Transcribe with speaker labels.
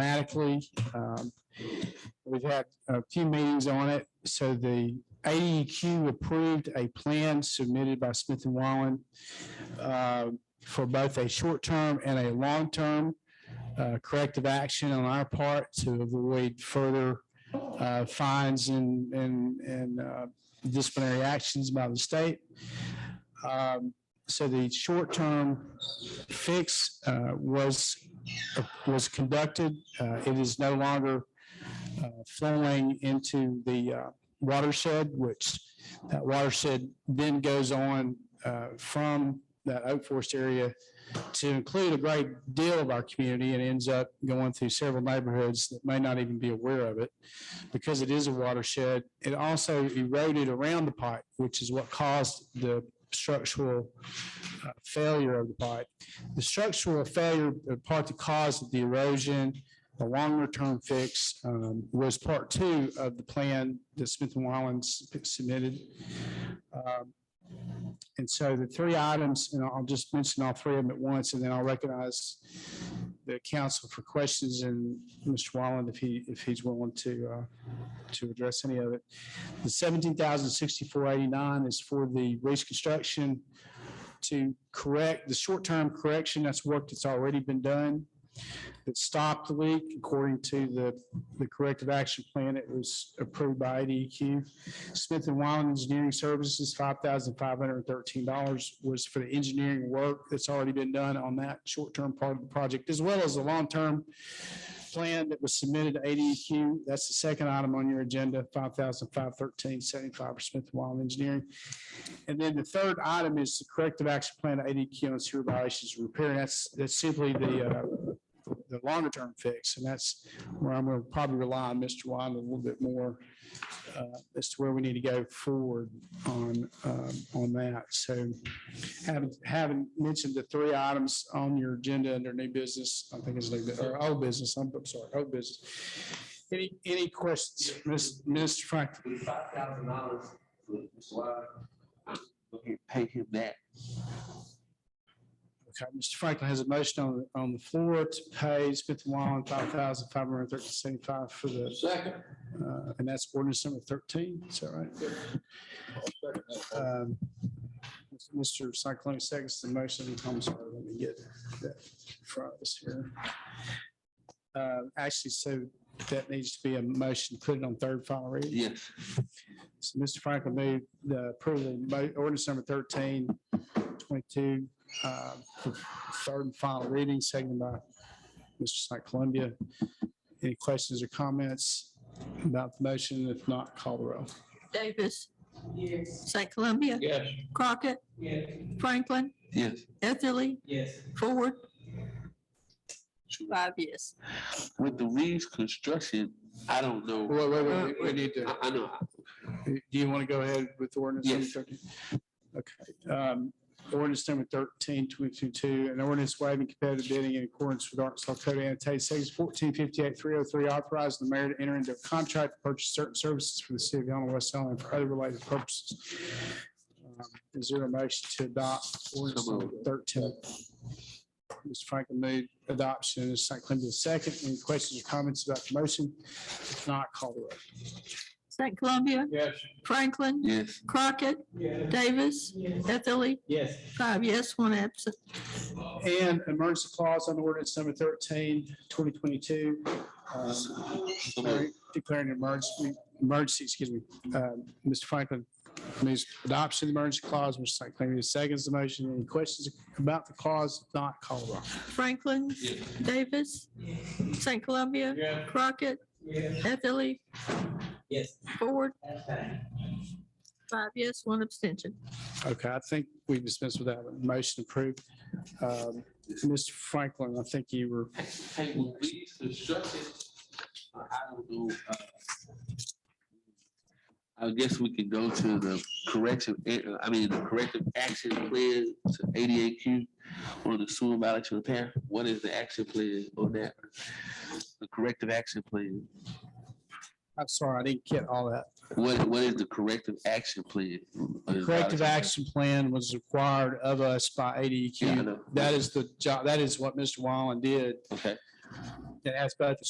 Speaker 1: dramatically. Um, We've had a few meetings on it. So the AEQ approved a plan submitted by Smith and Wallen uh, for both a short-term and a long-term uh, corrective action on our part to avoid further uh, fines and, and, and uh, disciplinary actions by the state. Um, So the short-term fix uh, was, was conducted. Uh, It is no longer uh, flowing into the uh, watershed, which that watershed then goes on uh, from that Oak Forest area to include a great deal of our community and ends up going through several neighborhoods that may not even be aware of it because it is a watershed. It also eroded around the pipe, which is what caused the structural uh, failure of the pipe. The structural failure, the part that caused the erosion, the longer-term fix um, was part two of the plan that Smith and Wallen submitted. Um, And so the three items, and I'll just mention all three of them at once, and then I'll recognize the council for questions and Mr. Wallen if he, if he's willing to, uh, to address any of it. The seventeen thousand sixty-four eighty-nine is for the reconstruction to correct the short-term correction. That's work that's already been done that stopped the leak according to the, the corrective action plan that was approved by IDEQ. Smith and Wild Engineering Services, five thousand five hundred and thirteen dollars was for the engineering work that's already been done on that short-term part of the project, as well as the long-term plan that was submitted to ADEQ. That's the second item on your agenda, five thousand five thirteen seventy-five for Smith and Wild Engineering. And then the third item is the corrective action plan to ADEQ on sewer violations and repair. And that's, that's simply the, uh, the longer term fix. And that's where I'm going to probably rely on Mr. Wyman a little bit more uh, as to where we need to go forward on, um, on that. So having, having mentioned the three items on your agenda under new business, I think it's new, bu- or old business, I'm I'm sorry, old business. Any, any questions, Ms. Mr. Franklin?
Speaker 2: Five thousand dollars, Mr. Wilder, we can pay him that.
Speaker 1: Okay, Mr. Franklin has a motion on, on the floor to pay Smith and Wallen five thousand five hundred and thirty-seventy-five for the,
Speaker 2: Second.
Speaker 1: uh, and that's ordinance number thirteen, is that right? Um, Mr. Cyclone seconds the motion. I'm sorry, let me get that in front of us here. Uh, Actually, so that needs to be a motion, put it on third final reading.
Speaker 2: Yes,
Speaker 1: So Mr. Franklin moved the approval of mo- ordinance number 13, 22, uh, for third and final reading, seconded by Mr. St. Columbia. Any questions or comments about the motion? If not, call the roll.
Speaker 3: Davis. Yes. St. Columbia. Yes. Crockett. Franklin,
Speaker 2: yes.
Speaker 3: Etherly. Yes. Ford. Five yes.
Speaker 2: With the Reeves construction, I don't know.
Speaker 1: Wait, wait, wait, we- we need to.
Speaker 2: I, I know,
Speaker 1: Do you want to go ahead with ordinance? number
Speaker 2: Yes.
Speaker 1: 13? Okay, um, ordinance number thirteen twenty-two, an ordinance waiving competitive bidding in accordance with Arkansas Code annotated section fourteen fifty-eight three oh three, authorizing the mayor to enter into a contract to purchase certain services for the city of Allen West Allen and for other related purposes. Um, Is there a motion to adopt ordinance
Speaker 2: So
Speaker 1: number thirteen? Mr. Franklin made adoption, and St. Columbia second. Any questions or comments about the motion? If not, call the roll.
Speaker 3: St. Columbia,
Speaker 1: Yes.
Speaker 3: Franklin,
Speaker 2: yes.
Speaker 3: Crockett, Davis, Etherly. Yes. Five yes, one absent.
Speaker 1: And emergency clause on ordinance number 13, 2022, uh,
Speaker 2: So moved.
Speaker 1: declaring an emergency, emergency, excuse me. Uh, Mr. Franklin moves adoption of the emergency clause, Mr. St. Clair seconds the motion. Any questions about the clause? If Not call the roll.
Speaker 3: Franklin,
Speaker 2: Yes.
Speaker 3: Davis, St. Columbia. Crockett. Etherly.
Speaker 4: Yes.
Speaker 3: Ford. Five yes, one abstention.
Speaker 1: Okay, I think we dismissed with that. one. Motion approved. Um, Mr. Franklin, I think you were,
Speaker 2: Hey, with Reeves construction, I I don't know. uh, I guess we could go to the corrective, uh, I mean, the corrective action plan to ADAQ on the sewer mileage repair. What is the action plan on that? The corrective action plan.
Speaker 1: I'm sorry, I didn't get all that.
Speaker 2: What, what is the corrective action plan?
Speaker 1: Corrective action plan was required of us by E
Speaker 2: Yeah, I
Speaker 1: ADEQ.
Speaker 2: know.
Speaker 1: That is the job, that is what Mr. Wallen did.
Speaker 2: Okay,
Speaker 1: that has both the